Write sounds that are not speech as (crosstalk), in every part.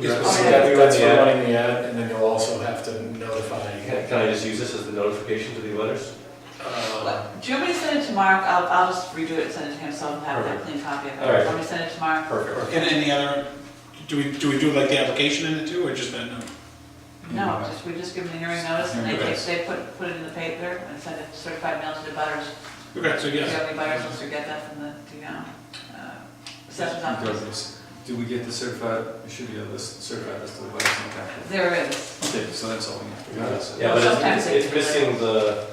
Yes. Oh, Yeah, we run That's the for ad. running the ad, and then you'll also have to notify, Can can I just use this as the notification to the letters? uh, But Do you want me to send it to Mark? I'll, I'll just redo it and send it to him, so I'll have that clean copy of it. All right. Want me to send it to Mark? Perfect. And any other, do we, do we do like the application in it too, or just that no? No, just, we just give them the hearing notice, and they, Okay. take- they put, put it in the paper and send it certified mail to the butters. Okay, so Do you have yes. any butters, once we get that from the, you know, uh, assessment office? Does- Do we get the certified, it should be a list, certified list of the butters in the packet. There is, Okay, so that's all we have. We got it. Yeah, but it's- Sometimes they it's, it's do letters. missing the,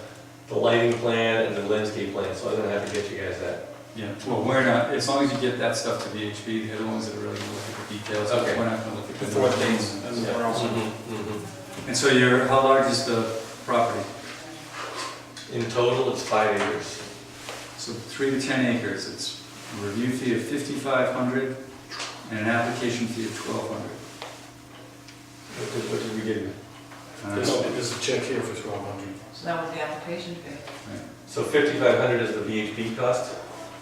the lighting plan and the landscape plan, so I'm gonna have to get you guys that. Yeah, well, we're not, as long as you get that stuff to VHB, they're the ones that are really gonna look at the details, Okay. we're not gonna look at the. Before things, Yeah. and then we're also- Mm-hmm, And so your, how large is the property? In total, it's five acres. So three to ten acres, it's a review fee of fifty-five hundred and an application fee of twelve hundred. What did, what did we give you? Uh, there's a, there's a check here for twelve hundred. so that was the application fee. So fifty-five hundred is the VHB cost?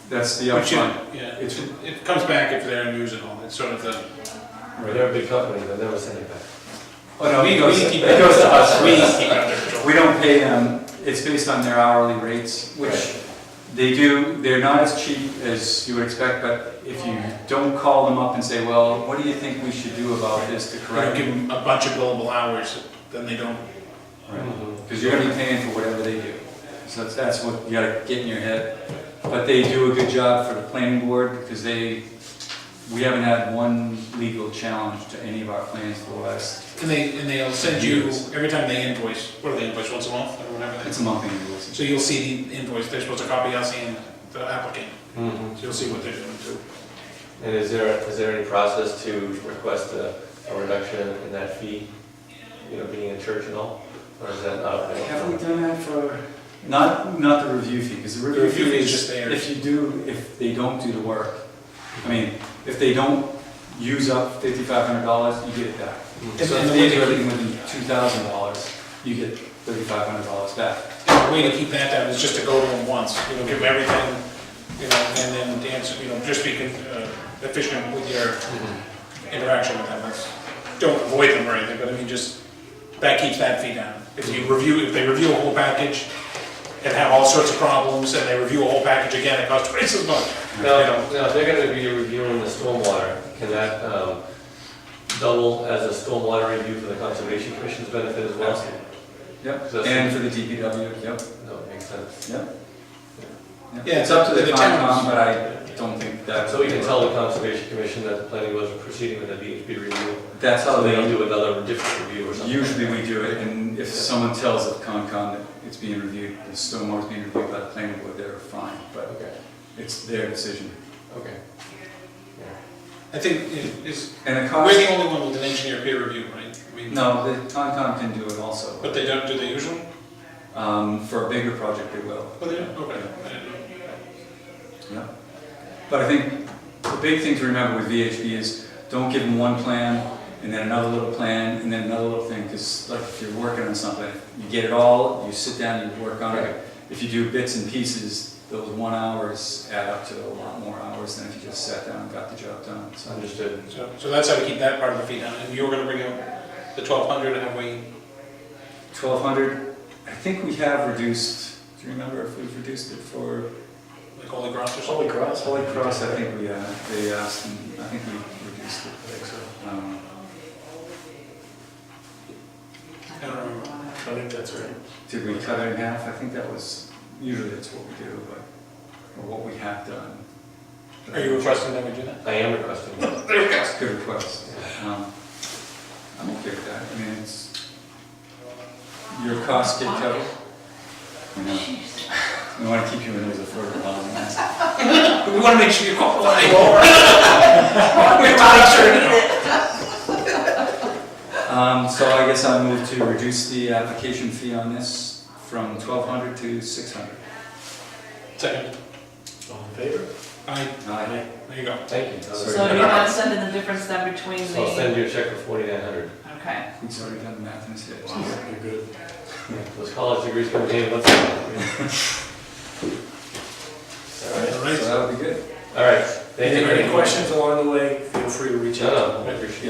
That's the Which, upfront. yeah, yeah, it's, it comes back if they're in use and all, it's sort of the, Right, they're a big company, they'll never send it back. Oh, no, We- it goes, we it keep- goes to us, we we, keep out their control. we don't pay them, it's based on their hourly rates, which they do, they're not as cheap as you would expect, but if you don't call them up and say, well, what do you think we should do about this to We don't correct give it? them a bunch of billable hours, then they don't, Because you're gonna be paying for whatever they do. So that's, that's what you gotta get in your head. But they do a good job for the planning board, because they, we haven't had one legal challenge to any of our plans for the last, and they, and they'll send you, every time they invoice, what do they invoice, once a month or whatever? they- it's a monthly invoice. So you'll see the invoice, they're supposed to copy us and the applicant, Mhm. so you'll see what they're doing too. And is there, is there any process to request a, a reduction in that fee, you know, being a church and all? Or is that not? Have we done that for? Not, not the review fee, because the The review review fee fee is is, just there. if you do, if they don't do the work, I mean, if they don't use up fifty-five hundred dollars, you get it back. And- So and if the way they do they- everything within two thousand dollars, you get thirty-five hundred dollars back. And the way to keep that down is just to go to them once, you know, give them everything, you know, and then dance, you know, just be uh, efficient with your interaction with them. That's- Don't avoid them or anything, but I mean, just, that keeps that fee down. If you review, if they review a whole package and have all sorts of problems, and they review a whole package again, it costs (laughs) twice as much. you know. Now, now, if they're gonna be reviewing the stormwater, can that, um, double as a stormwater review for the conservation commission's benefit as well? Yep, So- and for the DPW, yep, No, makes sense. yep. Yep. Yeah, It's up to the the towns. Concom, but I don't think that. So we can tell the conservation commission that the planning was proceeding with a VHB review, That's how so they they don't do another different review or something. Usually we do it, and if someone tells the Concom that it's being reviewed, the stormwater's being reviewed by the planning board, they're fine, but Okay, it's their decision. okay. I think it- it's, And the we're the Concom, only one with an engineer peer review, right? I mean, no, the Concom can do it But also. they don't do the usual? Um, for a bigger project, they will. Oh, they do? Okay. I didn't know. Yeah. But I think the big thing to remember with VHB is, don't give them one plan, and then another little plan, and then another little thing, because like if you're working on something, you get it all, you sit down and you work on Right. it. If you do bits and pieces, those one hours add up to a lot more hours than if you just sat down and got the job done, so. Understood. So, so that's how we keep that part of the fee down, and you were gonna bring up the twelve hundred, and we, Twelve hundred, I think we have reduced, do you remember if we've reduced it for like Holy Cross or Holy something? cross. Holy Cross? I think we, uh, they asked, and I think we reduced it. Um, I don't remember. I think that's right. Did we cut it in half? I think that was, usually that's what we do, but, or what we have done. Are you requesting that we do that? I am requesting that. There we go. That's a good request. Um, I'm okay with that. I mean, it's, your costs get covered. You know, Jeez. we want to keep you in as a further along. But we wanna make sure you call the (laughs) line. We're not sure. Um, so I guess I move to reduce the application fee on this from twelve hundred to six hundred. Second, All in favor? aye, Aye. there you go. Thank you. Sorry. So you're not sending the difference then between So I'll send the, you a check for forty-nine hundred. okay. He's already done the math in his head. You're good. Those college degrees come in, let's. All right. All right. So that would be good. All right, thank you. Any very any much. questions along the way, feel free to reach No, out. no, I appreciate it.